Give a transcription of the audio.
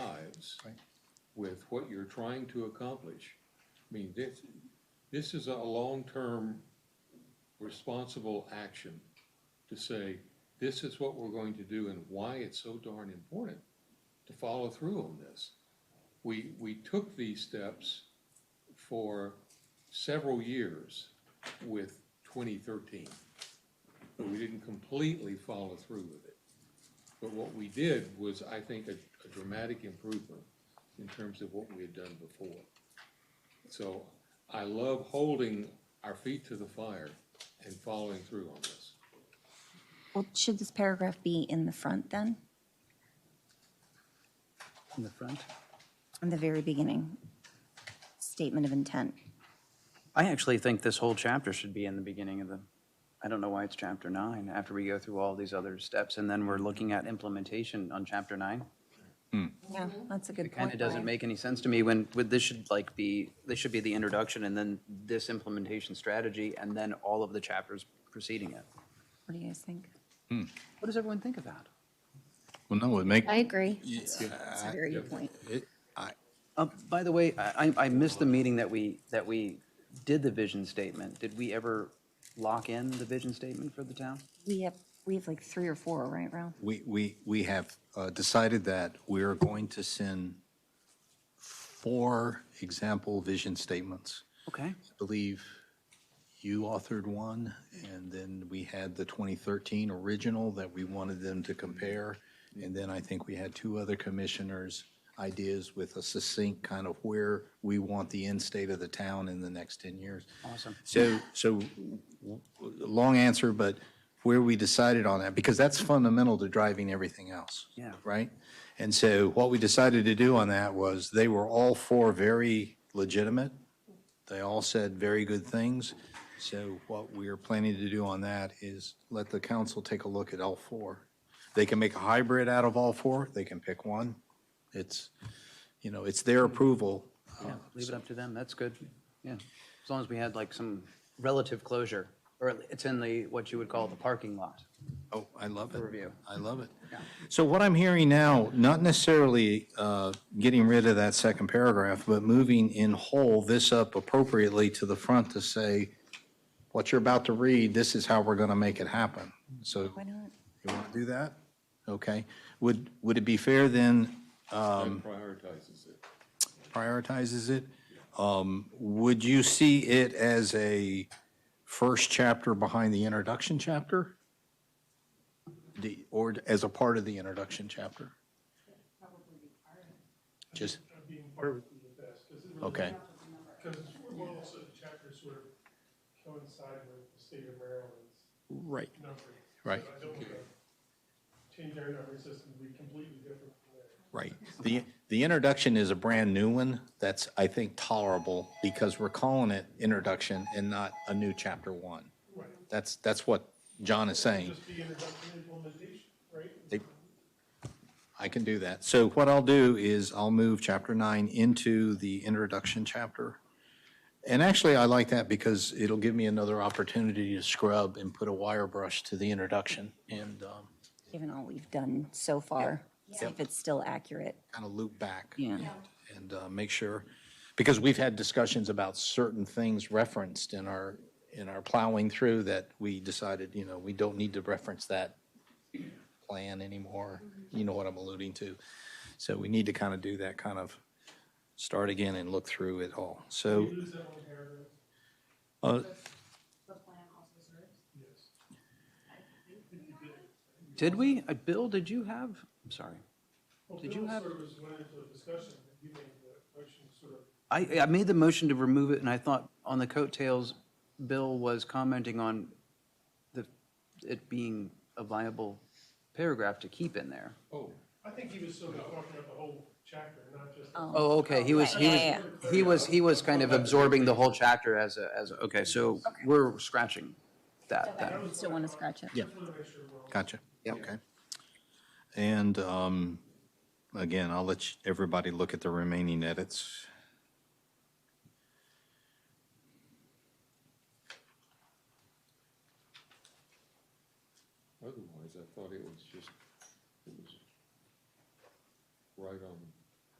jives Right. with what you're trying to accomplish. I mean, this, this is a long-term responsible action to say, this is what we're going to do and why it's so darn important to follow through on this. We, we took these steps for several years with twenty thirteen. But we didn't completely follow through with it. But what we did was, I think, a a dramatic improvement in terms of what we had done before. So I love holding our feet to the fire and following through on this. Well, should this paragraph be in the front then, in the front. in the very beginning? Statement of intent. I actually think this whole chapter should be in the beginning of the, I don't know why it's chapter nine, after we go through all these other steps, and then we're looking at implementation on chapter nine. Yeah, Mm-hmm. that's a good It kind point. of doesn't Brian. make any sense to me when, when this should like be, this should be the introduction, and then this implementation strategy, and then all of the chapters preceding it. What do you guys think? What does everyone think of that? Well, no, it make, I agree. That's a very good point. it, I, Uh, by the way, I, I I missed the meeting that we, that we did the vision statement. Did we ever lock in the vision statement for the town? We have, we have like three or four, right, Ralph? we, we, we have uh, decided that we are going to send four example vision statements. Okay. I believe you authored one, and then we had the 2013 original that we wanted them to compare. And then I think we had two other commissioners' ideas with a succinct kind of where we want the end state of the town in the next 10 years. Awesome. So, so, w- w- long answer, but where we decided on that, because that's fundamental to driving everything else. Yeah. Right? And so what we decided to do on that was, they were all four very legitimate. They all said very good things. So what we are planning to do on that is let the council take a look at all four. They can make a hybrid out of all four, they can pick one. It's, you know, it's their approval. uh, Yeah, leave it up to them, that's good, yeah. As long as we had like some relative closure, or it's in the, what you would call the parking lot. Oh, I love it. review. I love it. So what I'm hearing now, not necessarily uh, getting rid of that second paragraph, but moving in whole this up appropriately to the front to say, what you're about to read, this is how we're going to make it happen. So Why not? you want to do that? Okay. Would, would it be fair then, That prioritizes it. prioritizes it? Um, Would you see it as a first chapter behind the introduction chapter? The, or as a part of the introduction chapter? Just, of being part of the best, because it really. okay, Because we're also the chapter sort of coincide with the state of Maryland's right, numbering. Right. So I don't want to change our numbering system to be completely different from theirs. right. The, the introduction is a brand new one that's, I think, tolerable because we're calling it introduction and not a new chapter one. That's, that's what John is saying. Just be introduction and implementation, right? They- I can do that. So what I'll do is I'll move chapter nine into the introduction chapter. And actually, I like that because it'll give me another opportunity to scrub and put a wire brush to the introduction and um, Given all we've done so far, see if it's still accurate. kind of loop back. Yeah. And uh, make sure, because we've had discussions about certain things referenced in our, in our plowing through that we decided, you know, we don't need to reference that plan anymore. You know what I'm alluding to. So we need to kind of do that kind of start again and look through it all. So, We lose that one paragraph, uh, yes. Did we? Uh, Bill, did you have, I'm sorry. Well, Did you Bill have- Sort of was went into a discussion, and you made the motion sort of, I, I made the motion to remove it, and I thought on the coattails, Bill was commenting on the, it being a viable paragraph to keep in there. Oh, I think he was sort of talking about the whole chapter, not just. the- Oh, okay, he was, right, he yeah, was, he was, he was kind of absorbing the whole chapter as a, as, a- okay, so we're scratching that then. Still want to scratch it? Yeah. I want to make sure we're all. gotcha. Okay. And um, again, I'll let you- everybody look at the remaining edits. otherwise I thought it was just, it was right on